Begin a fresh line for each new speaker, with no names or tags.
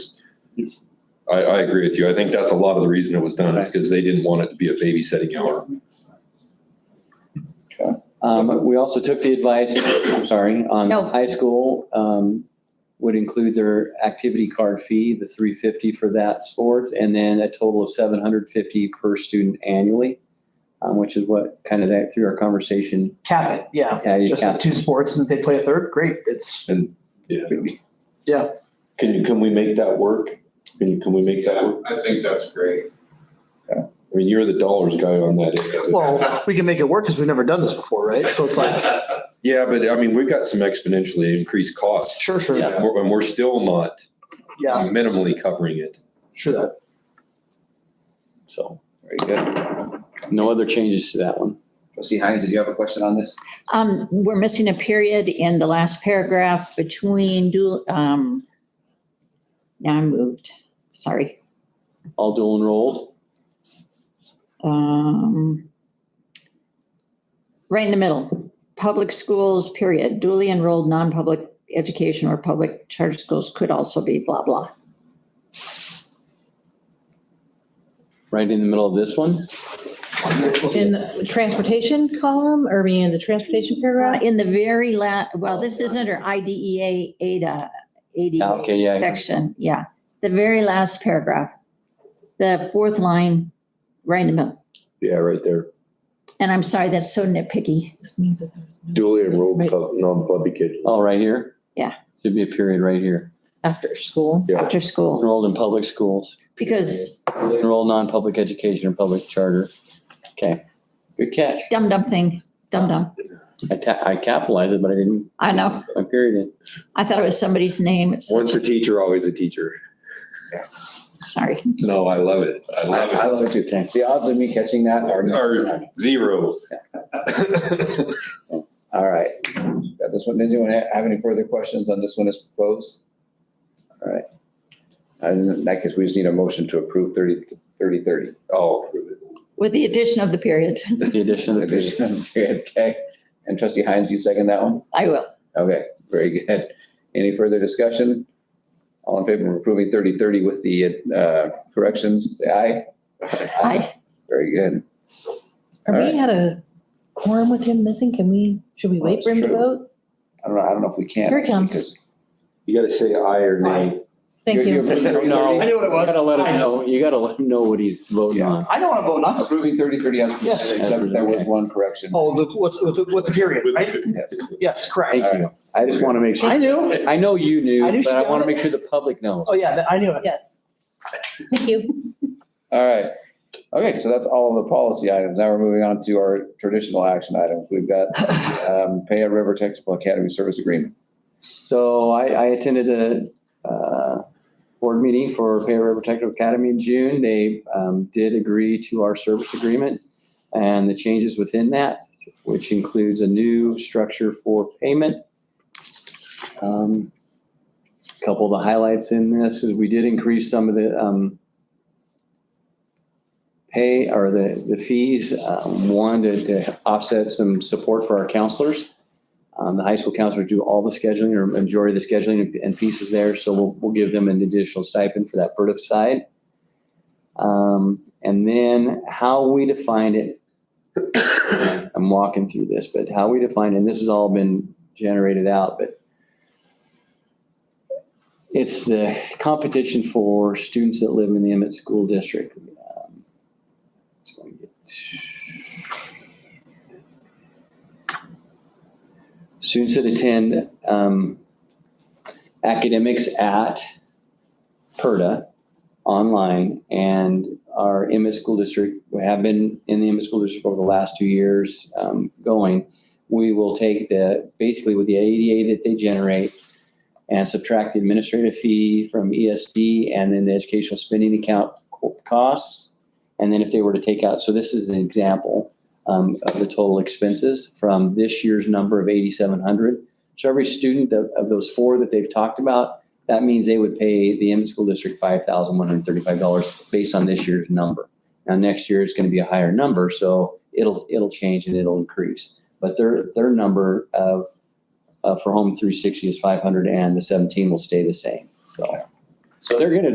I, I agree with you. I think that's a lot of the reason it was done is because they didn't want it to be a babysitting hour.
Um, we also took the advice, I'm sorry, on
No.
high school, um, would include their activity card fee, the three fifty for that sport, and then a total of seven hundred fifty per student annually, um, which is what kind of that through our conversation.
Cap it, yeah.
Yeah, you
Just
can't-
two sports and if they play a third, great. It's,
Yeah.
Yeah.
Can you, can we make that work? Can you, can we make that work?
I think that's great.
I mean, you're the dollars guy on that.
well, we can make it work because we've never done this before, right? So it's like,
Yeah, but I mean, we've got some exponentially increased costs
sure, sure.
and we're- and we're still not
Yeah,
minimally covering it.
sure that.
So.
Very good.
No other changes to that one.
Trustee Hines, did you have a question on this?
Um, we're missing a period in the last paragraph between dual, um, now I moved, sorry.
All dual enrolled,
Um, right in the middle, public schools, period, duly enrolled, non-public education or public charter schools could also be blah, blah.
right in the middle of this one.
In the transportation column, or being in the transportation
Uh,
paragraph?
In the very la, well, this is under E IDEA, ADA,
Okay, yeah.
ADA E section, yeah. The very last paragraph, the fourth line, right in the middle.
Yeah, right there.
And I'm sorry, that's so nitpicky.
This means that there's no-
Duly enrolled,
Right.
pub- non-public kid.
Oh, right here?
Yeah.
Should be a period right here.
After school.
Yeah.
After school,
Enrolled in public schools,
because
enrolled non-public education or public charter. Okay, good catch.
dum dum thing, dum dum.
I ta- I capitalized it, but I didn't,
I know.
I period it.
I thought it was somebody's name. It's-
Once a teacher, always a teacher.
Sorry.
No, I love it. I
I, I
love
love it too, Tank. The odds of me catching that are.
it. Or zero.
All right. Got this one. Does anyone ha- have any further questions on this one as proposed? All right. And in that case, we just need a motion to approve thirty, thirty, thirty.
Oh,
With the addition of the period,
The addition of the period.
Okay. And trustee Hines, you second that one?
I will.
Okay, very good. Any further discussion? All in favor of approving thirty thirty with the uh, corrections, say aye.
I,
Very good.
Are
Alright.
we had a quorum with him missing? Can we, should we wait for him to
That's true.
vote?
I don't know, I don't know if we can.
Here it comes.
because-
you gotta say aye or nay.
Thank
You're-
you.
you're approving
No.
30?
knew what it
You gotta let him know, you gotta let him know what he's voting on.
I don't want to vote nothing.
Approving thirty thirty as
Yes.
presented, except there was one correction.
Oh, the, what's, with the, with the period, right?
Yes.
Yes, correct.
Thank you. I just wanna make sure,
I knew.
I know you
I knew
knew,
she
but I
got
wanna
it.
make sure the public knows.
Oh, yeah, I knew it.
Yes. Thank you.
All right. Okay, so that's all of the policy items. Now we're moving on to our traditional action items. We've got um, Paya River Technical Academy Service Agreement.
So I, I attended a, uh, board meeting for Pay River Technical Academy in June. They, um, did agree to our service agreement and the changes within that, which includes a new structure for payment. Um, Couple of the highlights in this is we did increase some of the, um, pay or the, the fees, um, one to, to offset some support for our counselors. Um, the high school counselors do all the scheduling or majority of the scheduling and- and pieces there, so we'll, we'll give them an additional stipend for that BRDIP side. Um, and then how we defined it, I'm walking through this, but how we defined, and this has all been generated out, but it's the competition for students that live in the Emmett School District. Um, it's going to get- students that attend um, academics at PERDA online and our Emmett School District, we have been in the Emmett School District over the last two years um, going. We will take the, basically with the ADA that they generate and subtract the administrative fee from ESD and then the educational spending account co- costs. And then if they were to take out, so this is an example um, of the total expenses from this year's number of 8,700. So every student of, of those four that they've talked about, that means they would pay the Emmett School District $5,135 based on this year's number. Now, next year is going to be a higher number, so it'll, it'll change and it'll increase. But their, their number of, uh, for Home 360 is 500 and the 17 will stay the same, so. So they're going to